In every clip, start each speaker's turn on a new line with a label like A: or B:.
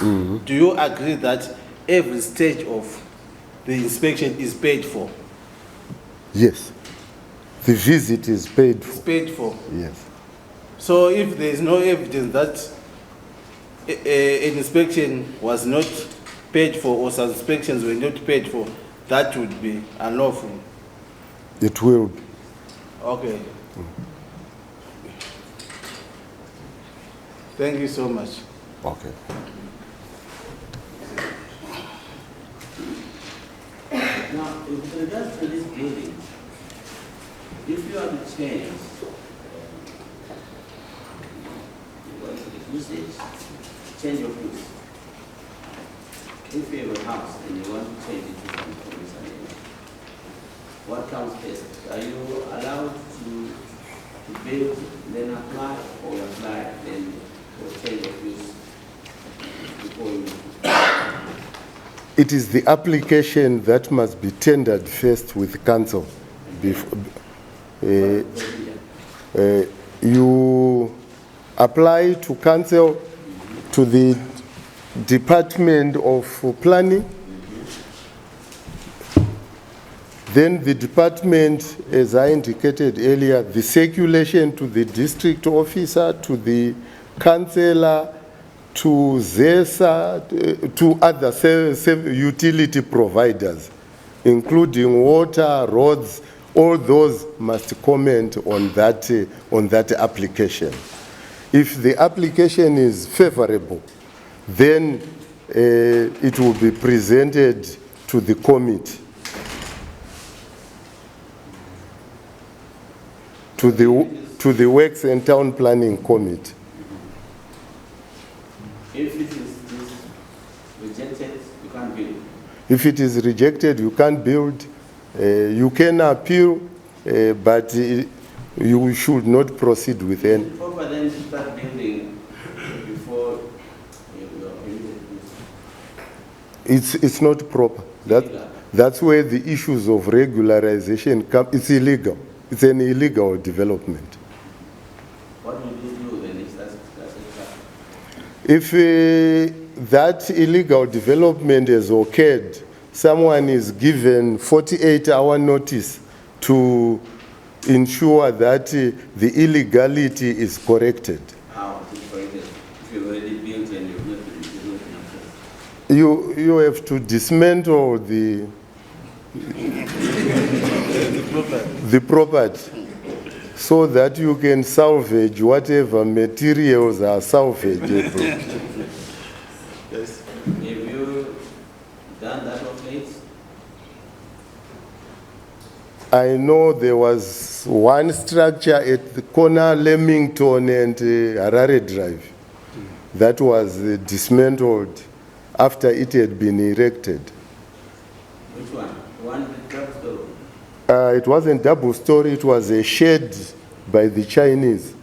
A: Do you agree that every stage of the inspection is paid for?
B: Yes. The visit is paid
A: It's
B: for.
A: paid for.
B: Yes.
A: So if there is no evidence that a- a- an inspection was not paid for or some inspections were not paid for, that would be unlawful.
B: It will be.
A: Okay. Thank you so much.
B: Okay.
C: Now, with regards to this building, if you have a chance, you want to use it, change your use. If you have a house and you want to change it to some commercial area, what comes first? Are you allowed to, to build, then apply, or apply, then for change of use before you?
B: It is the application that must be tendered first with council. Before, uh, uh, you apply to council, to the Department of Planning. Then the department, as I indicated earlier, the circulation to the district officer, to the councillor, to ZESA, uh, to other se- se- utility providers, including water, roads, all those must comment on that, uh, on that application. If the application is favorable, then uh, it will be presented to the committee. to the, to the Works and Town Planning Committee.
C: If it is this rejected, you can't build.
B: If it is rejected, you can't build, uh, you can appeal, uh, but uh, you should not proceed with
C: Is
B: any.
C: it proper then to start building before you you are permitted to
B: It's, it's not proper.
C: Illegal.
B: That, that's where the issues of regularization come, it's illegal. It's an illegal development.
C: What will you do then if that's, that's a trap?
B: If uh, that illegal development has occurred, someone is given 48-hour notice to ensure that uh, the illegality is corrected.
C: How to correct it? If you already built and you've not been, you've not been approved.
B: You, you have to dismantle the, the property so that you can salvage whatever materials are salvageable.
A: Yes.
C: Have you done that of late?
B: I know there was one structure at the corner Leamington and uh, Harare Drive that was uh, dismantled after it had been erected.
C: Which one? The one with trap door?
B: Uh, it wasn't double story, it was a shed by the Chinese.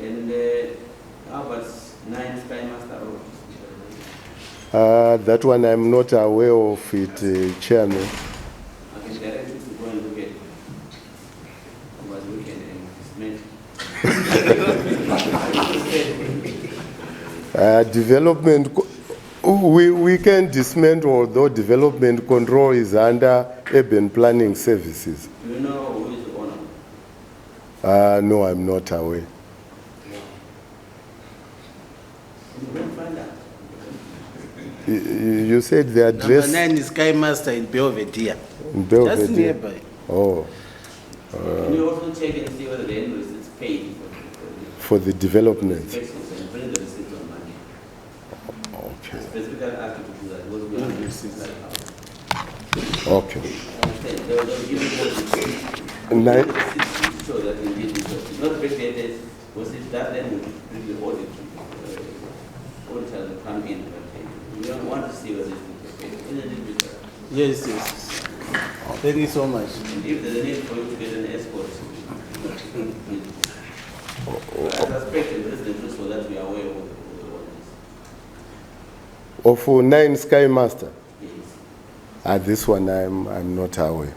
C: And uh, how about nine Sky Master Road?
B: Uh, that one I'm not aware of it, uh, Chairman.
C: I can direct you to go and look at it. Over the weekend and dismantle.
B: Uh, development, co- we, we can dismantle, although development control is under urban planning services.
C: Do you know who is the owner?
B: Uh, no, I'm not aware.
C: You can find out.
B: You- You you said the
A: Number
B: address?
A: nine is Sky Master in Belvedere.
B: in Belvedere.
A: Just nearby.
B: Oh,
C: Can you also check and see whether the invoice is paid
B: for
C: for the-
B: the
C: for the
B: development.
C: inspections and bring the receipt on Monday?
B: Okay,
C: Specifically ask you to do that, because we have receipts like uh, that.
B: okay.
C: Understand, they'll, they'll give you the receipt.
B: Nine-
C: The receipt to Show that indeed it was, it's not predated, was it that then would bring the audit, uh, auditor to come in and take. We don't want to see whether it's paid, isn't it, Mr.?
A: Yes, yes. Thank you so much.
C: And If there's a need for you to get an escort. I suspect the president knows so that we are aware of the ordinance.
B: Of uh, nine Sky Master,
C: Yes.
B: ah, this one I'm, I'm not aware.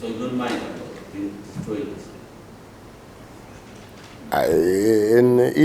C: So you don't mind about being destroyed?
B: I- And